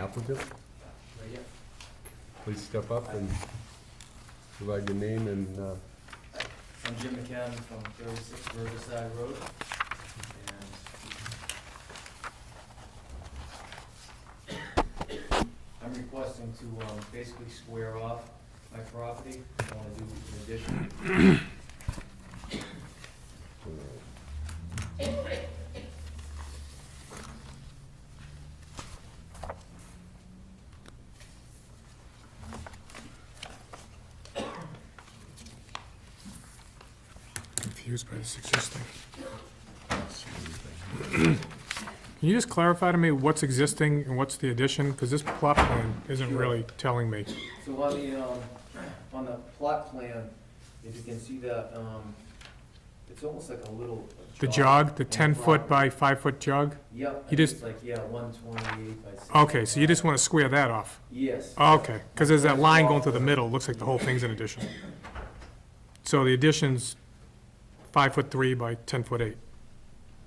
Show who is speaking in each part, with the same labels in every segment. Speaker 1: applicant? Please step up and provide your name and, uh,
Speaker 2: I'm Jim McCadden from 36 Riverside Road, and I'm requesting to um, basically square off my property. I want to do an addition.
Speaker 3: Confused by this existing. Can you just clarify to me what's existing and what's the addition? Because this plot plan isn't really telling me.
Speaker 2: So on the, um, on the plot plan, if you can see that, um, it's almost like a little jog.
Speaker 3: The jog, the
Speaker 2: on
Speaker 3: ten-foot
Speaker 2: property.
Speaker 3: by five-foot jog?
Speaker 2: Yep, I
Speaker 3: you
Speaker 2: think it's
Speaker 3: just-
Speaker 2: like, yeah, 128 by 65.
Speaker 3: Okay, so you just want to square that off?
Speaker 2: Yes.
Speaker 3: Okay, because there's that line going through the middle, looks like the whole thing's an addition. So the addition's five-foot three by ten-foot eight.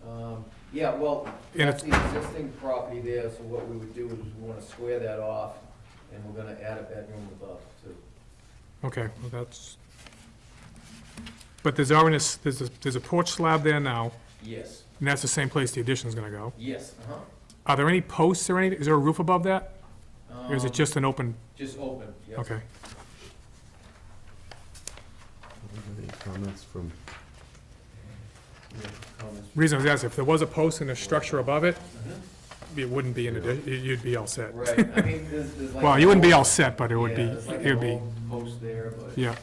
Speaker 2: Um, Yeah, well,
Speaker 3: And
Speaker 2: that's the existing property there, so what we would do is we wanna square that off, and we're gonna add a bedroom above too.
Speaker 3: Okay, well, that's... But there's already, a s- there's a, there's a porch slab there now,
Speaker 2: Yes,
Speaker 3: and that's the same place the addition's gonna go.
Speaker 2: yes, uh-huh.
Speaker 3: Are there any posts or any, is there a roof above that? Or is
Speaker 2: Um,
Speaker 3: it just an open,
Speaker 2: Just open, yeah.
Speaker 3: okay.
Speaker 1: any comments from,
Speaker 2: Yeah, comments.
Speaker 3: Reason I was asking, if there was a post and a structure above it,
Speaker 2: Mhm.
Speaker 3: it wouldn't be an addition, you'd be all set.
Speaker 2: Right, I mean, there's, there's like.
Speaker 3: Well,
Speaker 2: a
Speaker 3: you wouldn't be
Speaker 2: whole-
Speaker 3: all set, but it would be,
Speaker 2: Yeah, there's like
Speaker 3: it
Speaker 2: a
Speaker 3: would be,
Speaker 2: whole Post there, but.
Speaker 3: yeah.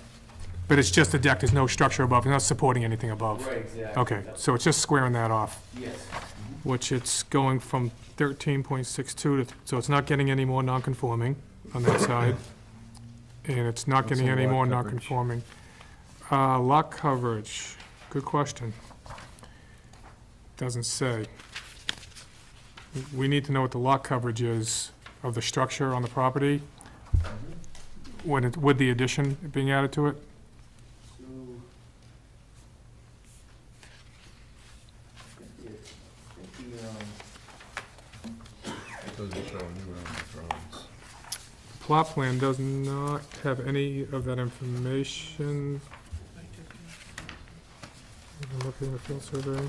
Speaker 3: But it's just a deck, there's no structure above, it's not supporting anything above.
Speaker 2: Right, exactly.
Speaker 3: Okay,
Speaker 2: yeah.
Speaker 3: so it's just squaring that off,
Speaker 2: Yes,
Speaker 3: which it's going from thirteen point six two to, so it's not getting any more non-conforming on that side. And it's not
Speaker 1: What's
Speaker 3: getting
Speaker 1: the
Speaker 3: any
Speaker 1: lot
Speaker 3: more
Speaker 1: coverage?
Speaker 3: non-conforming. Uh, lot coverage, good question. Doesn't say. We need to know what the lot coverage is of the structure on the property
Speaker 2: mhm.
Speaker 3: when it, with the addition being added to it.
Speaker 2: So. I think it- I think the, um,
Speaker 1: those are shown on the drawings.
Speaker 3: Plot plan does not have any of that information. Have a Look in the field survey.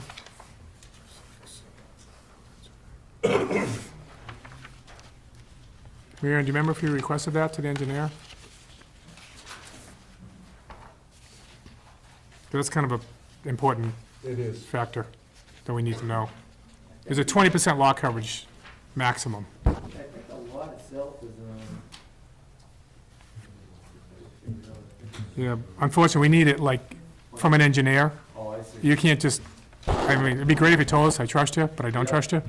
Speaker 3: Mary Ann, do you remember if you requested that to the engineer? That's kind of a important
Speaker 1: It is.
Speaker 3: factor that we need to know. There's a twenty percent lot coverage maximum.
Speaker 2: I think the lot itself is, um.
Speaker 3: Yeah, unfortunately, we need it like from an engineer.
Speaker 2: Oh, I see.
Speaker 3: You can't just, I mean, it'd be great if you told us, I trust you, but I don't
Speaker 2: Yeah.
Speaker 3: trust you.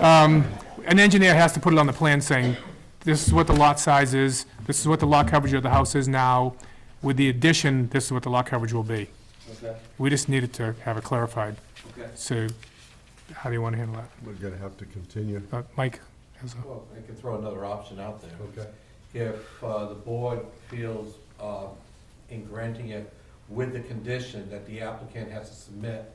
Speaker 3: Um, An engineer has to put it on the plan saying, this is what the lot size is, this is what the lot coverage of the house is now. With the addition, this is what the lot coverage will be.
Speaker 2: Okay,
Speaker 3: We just needed to have it clarified.
Speaker 2: okay.
Speaker 3: So how do you want to handle
Speaker 1: We're gonna have to continue,
Speaker 3: that? Uh, Mike? has a-
Speaker 4: Well, I can throw another option out there.
Speaker 1: okay?
Speaker 4: If uh, the board feels uh, in granting it with the condition that the applicant has to submit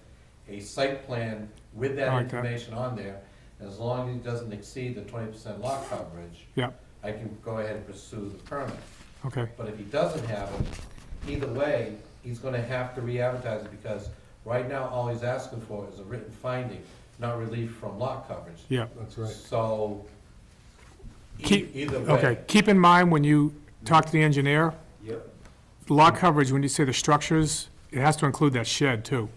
Speaker 4: a site plan with
Speaker 3: I
Speaker 4: that
Speaker 3: like that.
Speaker 4: information on there, as long as it doesn't exceed the twenty percent lot coverage.
Speaker 3: Yeah.
Speaker 4: I can go ahead and pursue the permit.
Speaker 3: Okay,
Speaker 4: But if he doesn't have it, either way, he's gonna have to re-advertise it because right now, all he's asking for is a written finding, not relief from lot coverage.
Speaker 3: yeah.
Speaker 1: That's right.
Speaker 4: So, e-
Speaker 3: Keep-
Speaker 4: either
Speaker 3: Okay,
Speaker 4: way,
Speaker 3: keep in mind when you talk to the engineer,
Speaker 2: Yep,
Speaker 3: lot coverage, when you say the structures, it has to include that shed too.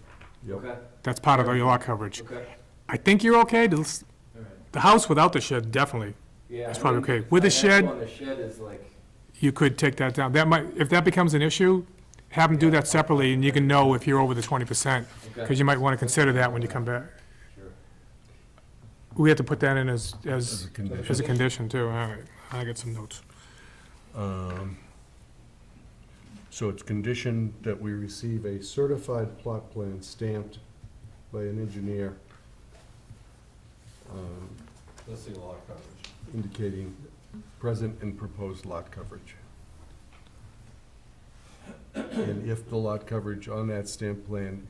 Speaker 1: Yep.
Speaker 2: okay,
Speaker 3: That's part of the lot coverage.
Speaker 2: okay,
Speaker 3: I think you're okay, the,
Speaker 2: all right.
Speaker 3: the house without the shed, definitely,
Speaker 2: Yeah.
Speaker 3: That's
Speaker 2: I
Speaker 3: probably
Speaker 2: think
Speaker 3: okay. With the
Speaker 2: financial
Speaker 3: shed-
Speaker 2: On the shed is like,
Speaker 3: you could take that down. That might, if that becomes an issue, have them do that separately, and you can know if you're over the twenty percent,
Speaker 2: okay,
Speaker 3: because you might want to consider that when you come back.
Speaker 2: sure.
Speaker 3: We have to put that in as,
Speaker 1: As
Speaker 3: as,
Speaker 1: a condition.
Speaker 3: as a condition too, all right, I got some notes.
Speaker 1: Um, So it's conditioned that we receive a certified plot plan stamped by an engineer um,
Speaker 4: let's see lot coverage.
Speaker 1: indicating present and proposed lot coverage. And if the lot coverage on that stamp plan